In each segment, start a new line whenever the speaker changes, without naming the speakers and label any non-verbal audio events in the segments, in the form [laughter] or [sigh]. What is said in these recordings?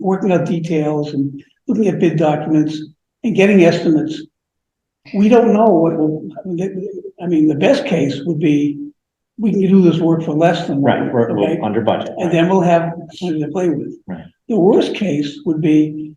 working out details and looking at bid documents and getting estimates. We don't know what will, I mean, the best case would be, we can do this work for less than. what-
Right, we're,
okay?
we're under budget.
And then we'll have something to play with.
Right.
The worst case would be,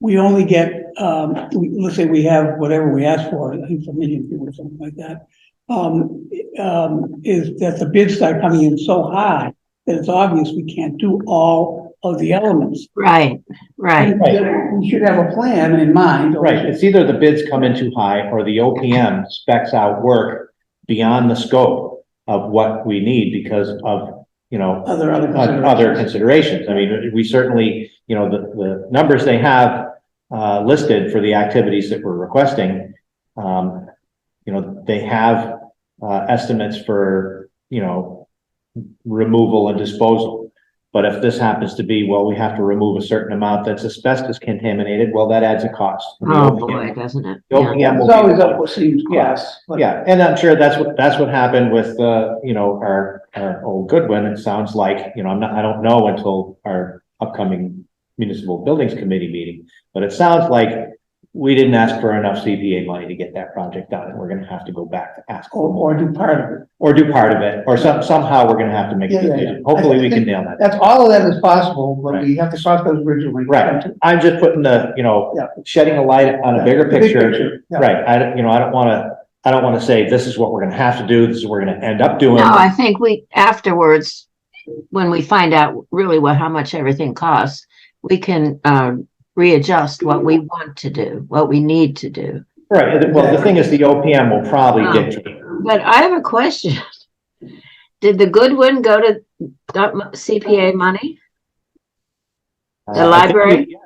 we only get, um, we- let's say we have whatever we ask for, I think it's a million people or something like that. Um, um, is that the bids start coming in so high that it's obvious we can't do all of the elements.
Right, right,
Right.
We should have a plan in mind. or-
Right, it's either the bids come in too high or the OPM specs out work beyond the scope of what we need because of, you know,
Other, other.
o- other considerations. I mean, we certainly, you know, the, the numbers they have uh, listed for the activities that we're requesting, um, you know, they have uh, estimates for, you know, removal and disposal. But if this happens to be, well, we have to remove a certain amount that's asbestos contaminated, well, that adds a cost.
oh boy, doesn't it?
The
Yeah.
OPM will
It's
be-
always up what seems yes.
yeah, and I'm sure that's what, that's what happened with, uh, you know, our, our old Goodwin. It sounds like, you know, I'm not, I don't know until our upcoming municipal buildings committee meeting. But it sounds like we didn't ask for enough CPA money to get that project done and we're gonna have to go back to ask
Or,
for more.
or do part of it.
Or do part of it, or some, somehow we're gonna have to make a
Yeah, yeah, yeah.
decision. Hopefully we can nail that.
That's, all of that is possible, but we have to cross those bridges when we come
Right.
to.
I'm just putting the, you know,
Yeah.
shedding a light on a bigger
The big
picture.
yeah.
Right, I don't, you know, I don't wanna, I don't wanna say this is what we're gonna have to do, this is what we're gonna end up doing.
No, I think we, afterwards, when we find out really what, how much everything costs, we can, uh, readjust what we want to do, what we need to do.
Right, and the- well, the thing is, the OPM will probably
Ah.
dictate.
But I have a question. [laughs] Did the Goodwin go to that mo- CPA money? The library?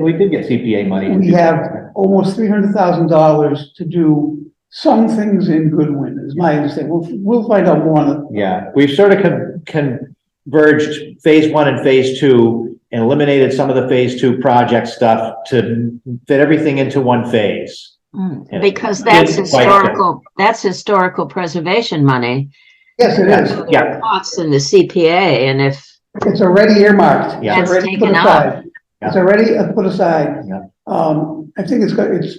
We did get CPA money.
We have almost three hundred thousand dollars to do some things in Goodwin, is my understanding. We'll, we'll find out more on it.
Yeah, we've sort of con- converged phase one and phase two, and eliminated some of the phase two project stuff to fit everything into one phase.
Hmm,
Yeah.
Because that's
Didn't quite get it.
historical, that's historical preservation money.
Yes, it
Yeah,
is.
yeah,
Costs in the CPA and if
It's already earmarked.
Yeah.
It's
It's
already put
taken up.
aside. It's already uh, put aside.
Yeah.
Um, I think it's, got- it's,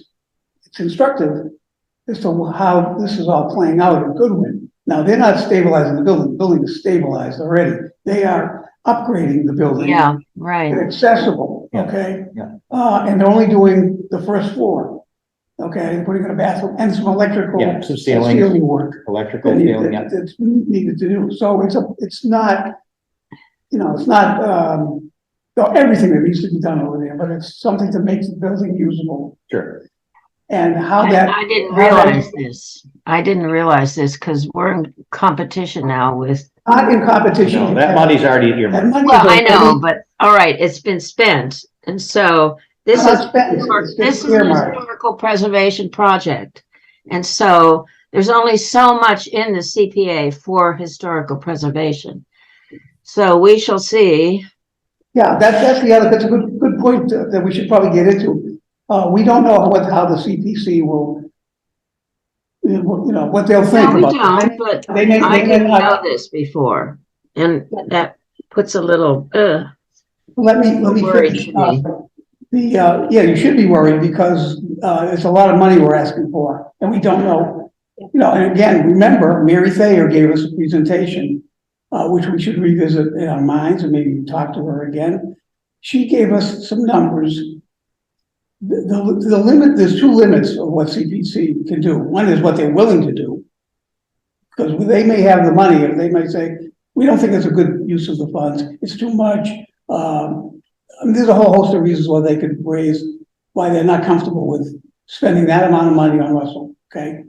it's instructive as to how this is all playing out in Goodwin. Now, they're not stabilizing the building. The building is stabilized already. They are upgrading the building.
Yeah, right.
and accessible,
Yeah,
okay?
yeah.
Uh, and they're only doing the first floor, okay, and putting in a bathroom and some electrical.
yeah, some
and
ceiling,
work
electrical
that he-
ceiling, yeah.
that- that's needed to do, so it's a, it's not, you know, it's not, um, no, everything that needs to be done over there, but it's something to make the building usable
sure.
and how
I
that,
I didn't
how that-
realize this. I didn't realize this because we're in competition now with,
not in competition.
No, that money's already
That
earmarked.
money is
well, I
already-
know, but all right, it's been spent. And so this
Not
is,
spent, it's- it's
this
just
is a
earmarked.
historical preservation project. And so there's only so much in the CPA for historical preservation. So we shall see.
Yeah, that's, that's the other, that's a good, good point that that we should probably get into. Uh, we don't know what, how the CPC will, you know, you know, what they'll think
No, we
about.
don't, but
They may,
I
they may
didn't know
not,
this before, and that puts a little, uh,
let me, let me
Worried
finish.
to
uh,
me.
The, uh, yeah, you should be worried because, uh, it's a lot of money we're asking for and we don't know. You know, and again, remember Mary Thayer gave us a presentation, uh, which we should revisit in our minds and maybe talk to her again. She gave us some numbers The, the, the limit, there's two limits of what CPC can do. One is what they're willing to do. Because they may have the money, or they may say, we don't think it's a good use of the funds, it's too much. Um, I mean, there's a whole host of reasons why they could raise, why they're not comfortable with spending that amount of money on Russell, okay?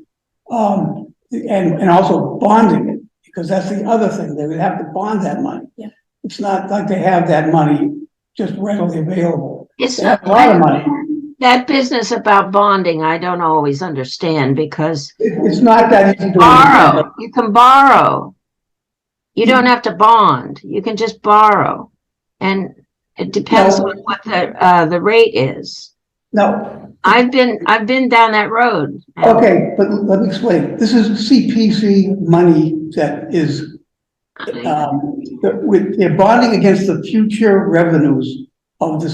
Um, and, and also bonding it, because that's the other thing, they would have to bond that money.
Yeah.
It's not like they have that money just readily available.
it's
They have a lot of money.
That business about bonding, I don't always understand because
It, it's not that easy to.
borrow, you can borrow. You don't have to bond, you can just borrow. And it depends
No.
on what the, uh, the rate is.
No,
I've been, I've been down that road.
okay, but let me explain. This is CPC money that is, Uh, um, that with, they're bonding against the future revenues of the